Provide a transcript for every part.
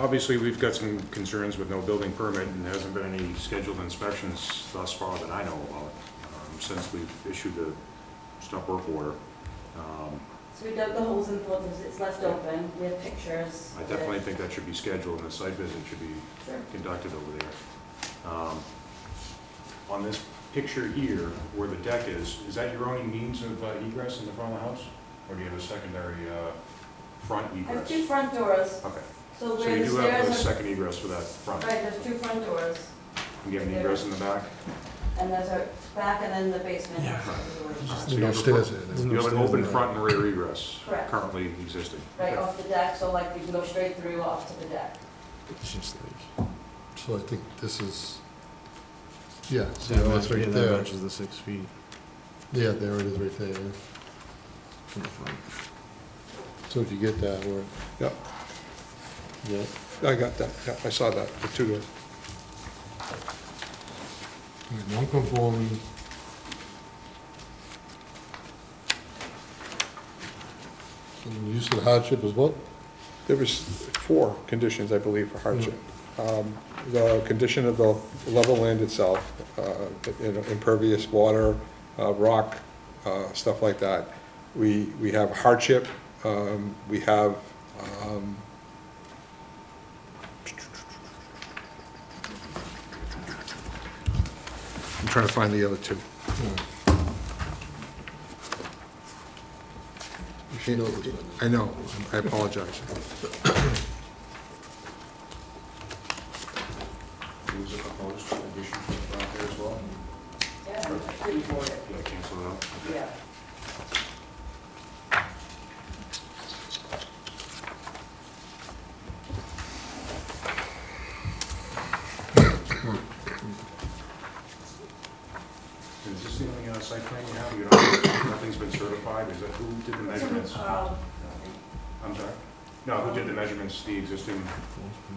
Obviously, we've got some concerns with no building permit, and there hasn't been any scheduled inspections thus far that I know about, um, since we've issued the stop work order. Um, So we dug the holes in the floor, because it's left open, we have pictures. I definitely think that should be scheduled, and the site visit should be Sure. conducted over there. Um, On this picture here, where the deck is, is that your only means of uh, egress in the front of the house? Or do you have a secondary uh, front I have two egress? front doors, Okay, so so where you the do have a stairs are, second egress for that front. right, there's two front doors, You get an egress in the back? and there's a back and then the basement. Just- So Right you There's have no a stairs front- there. There's You no have an stairs open there. front and rear egress Correct. currently existing. Right Okay. off the deck, so like you can go straight through off to the deck. It's just like, So I think this is, yeah, see, yeah, that's that's right that there. matches the six feet Yeah, there it is, right there. from the front. So if you get that, where, Yep, yeah, I got that, yep, I saw that, the two, He's non-conforming. And the use of hardship is what? there was four conditions, I believe, for hardship. Um, The condition of the level land itself, uh, you know, impervious water, uh, rock, uh, stuff like that. We, we have hardship, um, we have, um, I'm trying to find the other two. You should know this one. I know, I apologize. Is it proposed addition out there as well? Yeah, it's pretty boarded, Yeah, cancel it out. yeah. Is this the only uh, site plan you have? You don't, nothing's been certified? Is that, who did the measurements? Um, I'm sorry? No, who did the measurements, the existing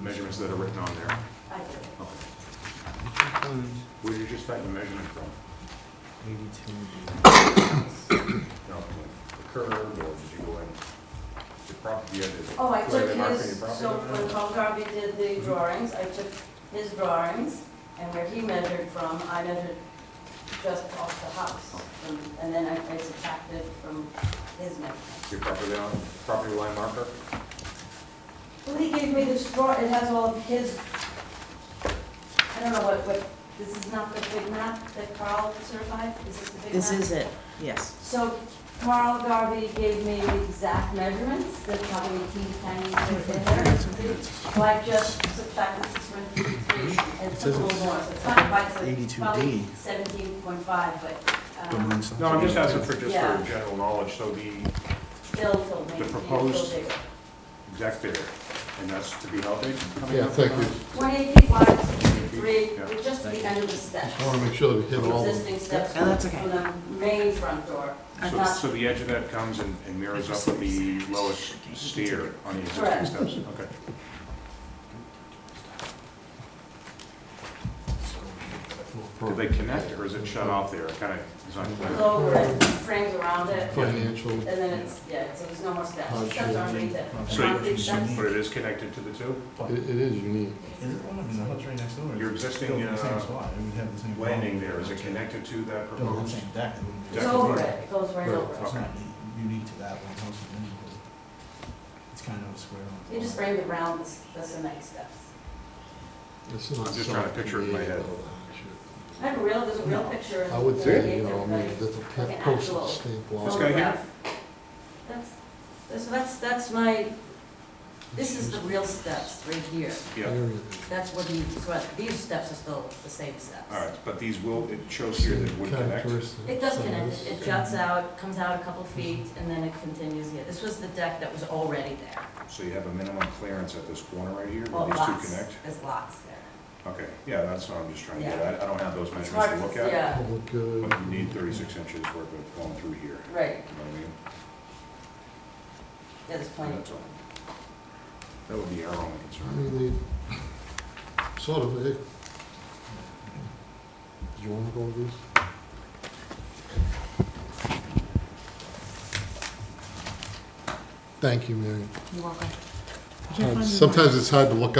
measurements that are written on there? I did. Okay. Where did you just type the measurement from? No, the curve, or did you go in? The prop, you had to. Oh, I you had took to mark your his, property so line? when Tom Garvey did the drawings, I took his drawings, and where he measured from, I measured just off the house. from- And then I I subtracted from his measurement. Your property line, property line marker? Well, he gave me this draw, it has all of his, I don't know what, what, this is not the big map that Carl certified? Is this the big map? This is it, yes. So Carl Garvey gave me the exact measurements, the probably he kind of in there. So I just subtracted six one three three and took a little more, so it's not quite, so it's 82D. probably seventeen point five, but, Don't um, mind something. No, I'm just asking for, just Yeah. for general knowledge, so the Bill told The me. to be a proposed- little bigger. exact there, and that's to be how big? coming Yeah, up? thank you. Twenty-eight feet wide, sixty-three, Yeah. with just the end of the Just wanna steps, make sure that we hit all of them. existing steps And from that's okay. the main front door. So, Not- so the edge of that comes and and mirrors up with the lowest stair on the existing Correct. steps? Okay. Do they connect, or is it shut off there? Kind of, it's not It's clear. over it, frames around it, Financial, and then it's, yeah, so there's no more steps, Oh, steps sure. aren't needed. Not So you- big steps. But it is connected to the two? it, it is unique. It's right next door. Your It's existing, built in the same uh, spot. It would have the same problem. Landing there, is it connected to that Built on the proposed? same deck. It wouldn't be- It's over it, it goes right over it. It's not unique to that one. House is unique. It's kind of a square on. You just frame it around the, the cement steps. It's not I'm just trying to picture it in my head. I have a real, there's a real No. picture. uh, I would that say, gave you know, I mean, everybody. that's a Like pe- an actual postal stamp This law. guy here? Photograph. That's, that's, that's, that's my, this is the real steps right here. Yeah, That's what he, what, these steps are still the same steps. all right, but these will, it shows here that it would connect. It does connect, it juts out, comes out a couple feet, and then it continues here. This was the deck that was already there. So you have a minimum clearance at this corner right here, Well, where these two lots, connect? there's lots there. Okay, yeah, that's what I'm just trying to get Yeah. at. I don't have those It's measurements hard, to look at. yeah, Public, uh, But you need thirty-six inches worth of going through here, right, you know what I mean? there's plenty. That's all. That would be our only I concern. mean, they, sort of, eh? Do you wanna go with this? Thank you, Mary. You're welcome. I find it- Um, Sometimes it's hard to look up.